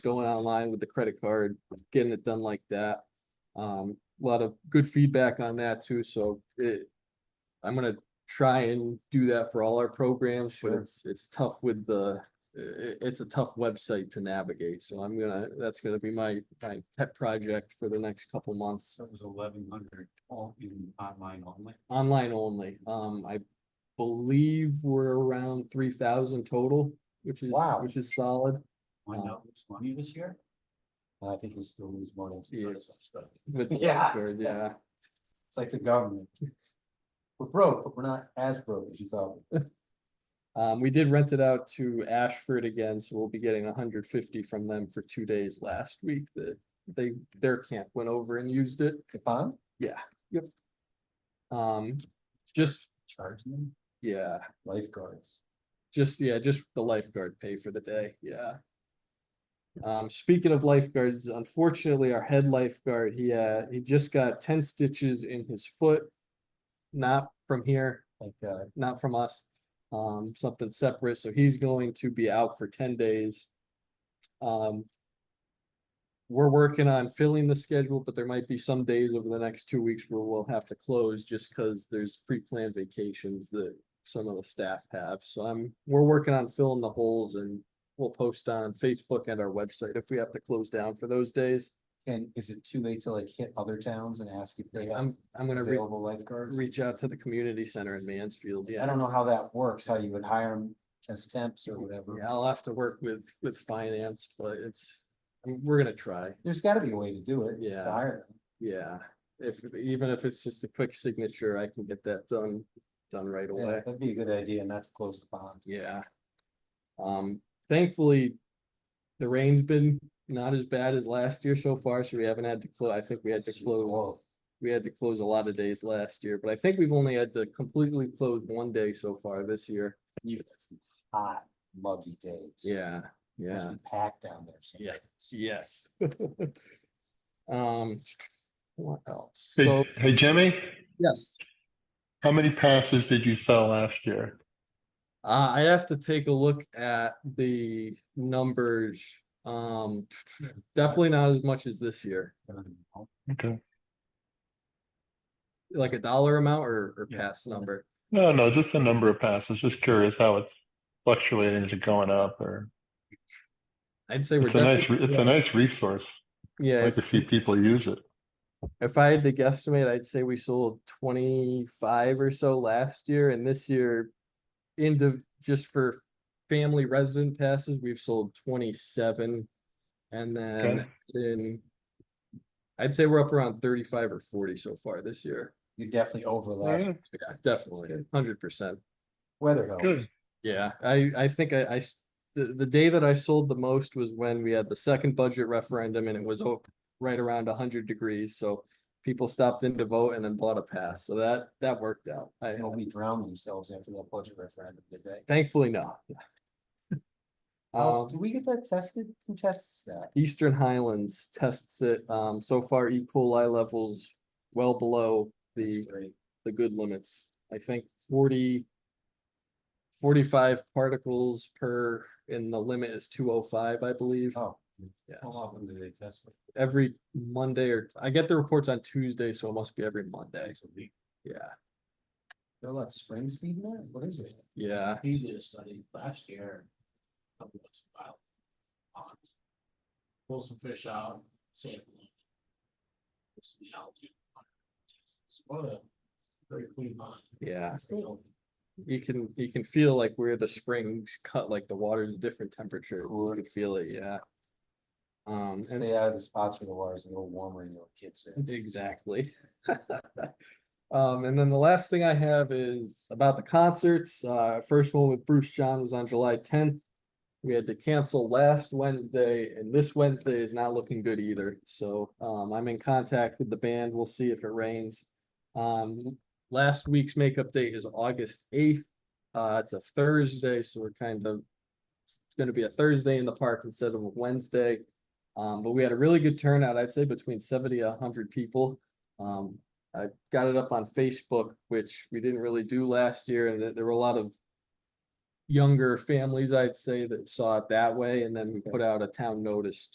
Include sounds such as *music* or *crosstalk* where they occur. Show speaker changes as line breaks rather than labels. going online with the credit card, getting it done like that. Um, a lot of good feedback on that too, so it, I'm gonna try and do that for all our programs, but
Sure.
it's, it's tough with the, i- i- it's a tough website to navigate, so I'm gonna, that's gonna be my, my pet project for the next couple months.
So it was eleven hundred all in online only.
Online only, um, I believe we're around three thousand total, which is,
Wow.
which is solid.
Why not lose money this year?
Oh. I think you still lose money.
Yeah.
It's
with the
*laughs* Yeah.
lifeguard, yeah.
like the government. We're broke, but we're not as broke as you thought.
Um, we did rent it out to Ashford again, so we'll be getting hundred fifty from them for two days last week that they, their camp went over and used it.
The bond
Yeah, yep. Um, just,
charging them
yeah,
lifeguards.
just, yeah, just the lifeguard pay for the day, yeah. Um, speaking of lifeguards, unfortunately, our head lifeguard, he, uh, he just got ten stitches in his foot. Not from here,
Like, uh,
not from us, um, something separate, so he's going to be out for ten days. Um. We're working on filling the schedule, but there might be some days over the next two weeks where we'll have to close just because there's pre-planned vacations that some of the staff have, so I'm, we're working on filling the holes and we'll post on Facebook and our website if we have to close down for those days.
and is it too late to like hit other towns and ask if they have
I'm, I'm gonna re-
available lifeguards?
reach out to the community center in Mansfield, yeah.
I don't know how that works, how you would hire them as temps or whatever.
Yeah, I'll have to work with, with finance, but it's, I mean, we're gonna try,
There's gotta be a way to do it. to
Yeah.
Hire them.
yeah. If, even if it's just a quick signature, I can get that done, done right
Yeah,
away,
that'd be a good idea not to close the bond.
yeah. Um, thankfully, the rain's been not as bad as last year so far, so we haven't had to close, I think we had to
Jeez,
close,
whoa.
we had to close a lot of days last year, but I think we've only had to completely close one day so far this year.
You've had some hot muggy days.
Yeah,
Must
yeah.
be Packed down there. some
Yeah.
days.
Yes. *laughs* Um, what else? So,
Hey, hey, Jimmy,
yes,
how many passes did you sell last year?
uh, I'd have to take a look at the numbers. Um, definitely not as much as this year,
I don't know.
Okay.
like a dollar amount or, or
Yeah.
pass number.
No, no, just the number of passes. Just curious how it's fluctuating. Is it going up or?
I'd say we're
It's a nice,
definitely,
re- it's a nice resource.
yeah,
Like to
if-
see people use it.
if I had to guesstimate, I'd say we sold twenty-five or so last year and this year. Into, just for family resident passes, we've sold twenty-seven. And then
Okay.
in. I'd say we're up around thirty-five or forty so far this year.
You're definitely over last,
Yeah,
Yeah, definitely,
good.
hundred percent.
weather helps.
Good.
Yeah, I, I think I, I s- the, the day that I sold the most was when we had the second budget referendum and it was o- right around hundred degrees, so people stopped in to vote and then bought a pass, so that, that worked out. I,
Nobody drowned themselves after that budget referendum, did they?
thankfully, no.
Oh, do
Um,
we get that tested? Who tests that?
Eastern Highlands tests it, um, so far E. coli levels well below
That's
the
great.
the good limits. I think 40 45 particles per, and the limit is two oh five, I believe.
Oh,
Yeah,
How
so
often do they test it?
every Monday or, I get the reports on Tuesday, so it must be every Monday.
Once a week.
Yeah,
there are a lot of springs feeding that? What is it?
yeah,
He did a study last year. couple of wild ponds. Pull some fish out, sample them. Put some algae on it. It's what a very clean pond.
yeah.
It's healthy.
You can, you can feel like where the springs cut, like the water's a different temperature. You
Cooler.
can feel it, yeah. Um, and
Stay out of the spots where the water's a little warmer and your kids in.
Exactly. *laughs* Um, and then the last thing I have is about the concerts. Uh, first one with Bruce John was on July tenth. We had to cancel last Wednesday and this Wednesday is not looking good either. So, um, I'm in contact with the band. We'll see if it rains. Um, last week's makeup date is August eighth. Uh, it's a Thursday, so we're kind of, it's gonna be a Thursday in the park instead of a Wednesday. Um, but we had a really good turnout, I'd say between seventy, a hundred people. Um, I got it up on Facebook, which we didn't really do last year, and there- there were a lot of younger families, I'd say, that saw it that way, and then we put out a town notice